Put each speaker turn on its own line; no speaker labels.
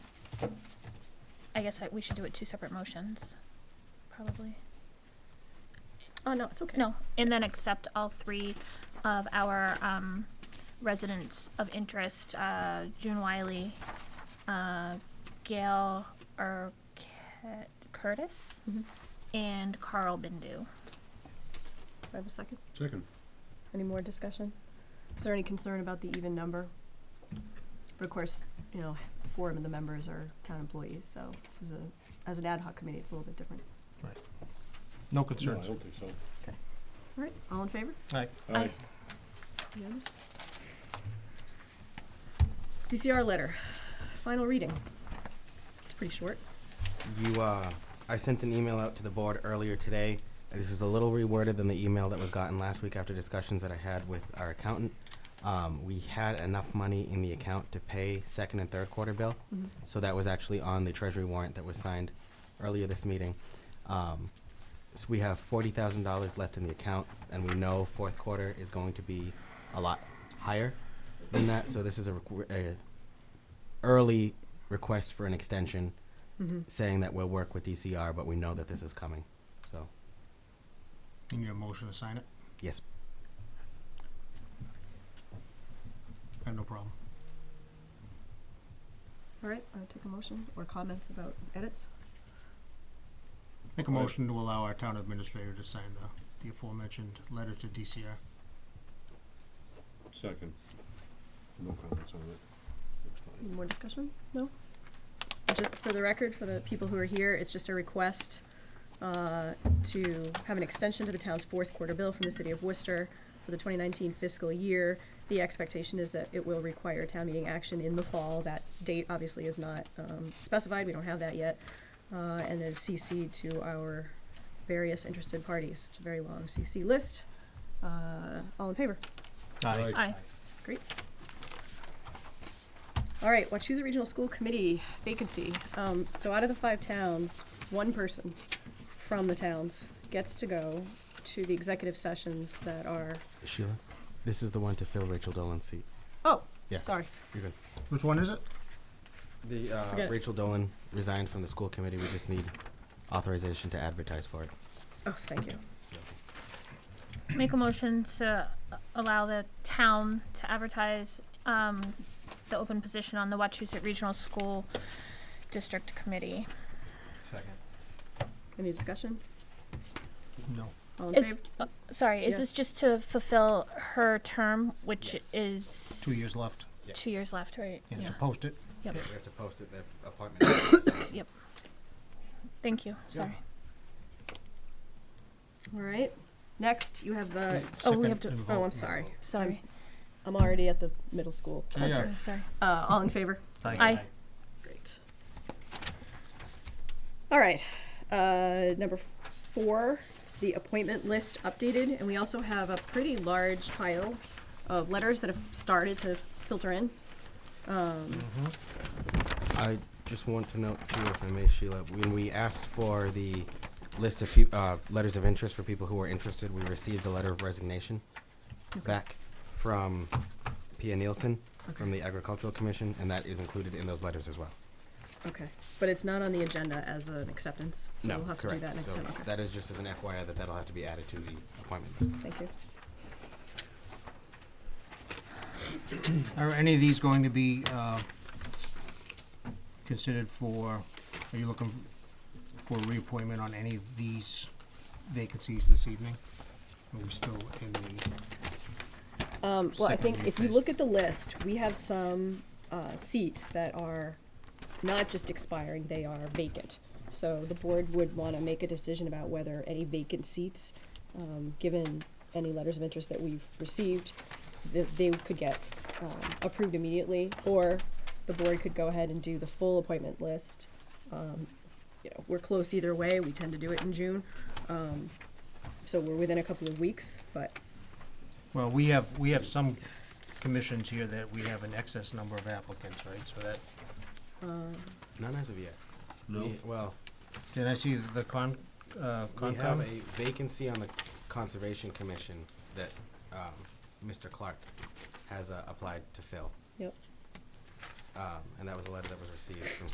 I guess I, we should do it two separate motions, probably.
Oh, no, it's okay.
No, and then accept all three of our, um, residents of interest, uh, June Wiley, uh, Gail Ur- Curtis,
Mhm.
and Carl Bindu.
Do I have a second?
Second.
Any more discussion? Is there any concern about the even number? But of course, you know, four of the members are town employees, so this is a, as an ad hoc committee, it's a little bit different.
No
No, I
concerns.
don't think so.
All right, all in favor?
Aye.
Aye.
Unanimous? DCR letter, final reading. It's pretty short.
You, uh, I sent an email out to the board earlier today. This is a little reworded than the email that was gotten last week after discussions that I had with our accountant. Um, we had enough money in the account to pay second and third quarter bill.
Mhm.
So that was actually on the treasury warrant that was signed earlier this meeting. Um, so we have forty thousand dollars left in the account, and we know fourth quarter is going to be a lot higher than that. So this is a, requ- a early request for an extension,
Mm-hmm.
saying that we'll work with DCR, but we know that this is coming. So
You need a motion to sign it?
yes,
I have no problem.
All right, I'll take a motion or comments about edits.
Make a
Aye.
motion to allow our town administrator to sign the, the aforementioned letter to DCR.
Second. No comments on it. Looks fine.
Any more discussion? No? Just for the record, for the people who are here, it's just a request uh, to have an extension to the town's fourth quarter bill from the city of Worcester for the 2019 fiscal year. The expectation is that it will require town meeting action in the fall. That date obviously is not um, specified, we don't have that yet. Uh, And then CC to our various interested parties. It's a very long CC list. Uh, All in favor?
Aye.
Aye.
All right, Wachusett Regional School Committee vacancy. Um, so out of the five towns, one person from the towns gets to go to the executive sessions that are,
Sheila, this is the one to fill Rachel Dolan's seat.
oh,
Yeah.
sorry.
You're good.
Which one is it?
The
Forget
uh,
it.
Rachel Dolan resigned from the school committee. We just need authorization to advertise for it.
Oh, thank you.
Make a motion to allow the town to advertise, um, the open position on the Wachusett Regional School District Committee.
Second.
Any discussion?
No.
All in
Is,
favor?
uh, sorry, is
Yeah.
this just to fulfill her term, which
Yes.
is?
Two years left.
Yeah.
Two years left, right?
You have to post it.
Yep.
we have to post it. The appointment.
Thank you, sorry.
All right. Next, you have the,
Oh, we
Second
have to-
and
oh,
vote.
I'm sorry.
Sorry.
I'm already at the middle school.
Yeah, yeah.
Sorry, sorry.
Uh, all in favor?
Aye.
Great. All right, uh, number four, the appointment list updated, and we also have a pretty large pile of letters that have started to filter in. Um,
I just want to note too, if I may, Sheila, when we asked for the list of peop- uh, letters of interest for people who were interested, we received a letter of resignation back from Pia Nielsen from the Agricultural Commission, and that is included in those letters as well.
okay, but it's not on the agenda as an acceptance, so
no,
we'll have to do
correct.
that next
so
time, okay.
that is just as an FYI that that'll have to be added to the appointment list.
Thank you.
Are any of these going to be, uh, considered for, are you looking for reappointment on any of these vacancies this evening? Are we still in the,
Um, well, I
Second
think
read
if you
first.
look at the list, we have some, uh, seats that are not just expiring, they are vacant. So the board would wanna make a decision about whether any vacant seats, um, given any letters of interest that we've received, that they could get, um, approved immediately, or the board could go ahead and do the full appointment list. Um, you know, we're close either way, we tend to do it in June, um, so we're within a couple of weeks, but
well, we have, we have some commissions here that we have an excess number of applicants, right? So that,
None as of yet.
No?
We- well,
did I see the con, uh,
we have
Concom?
a vacancy on the Conservation Commission that um, Mr. Clark has uh, applied to fill.
Yep.
Um, and that was a letter that was received from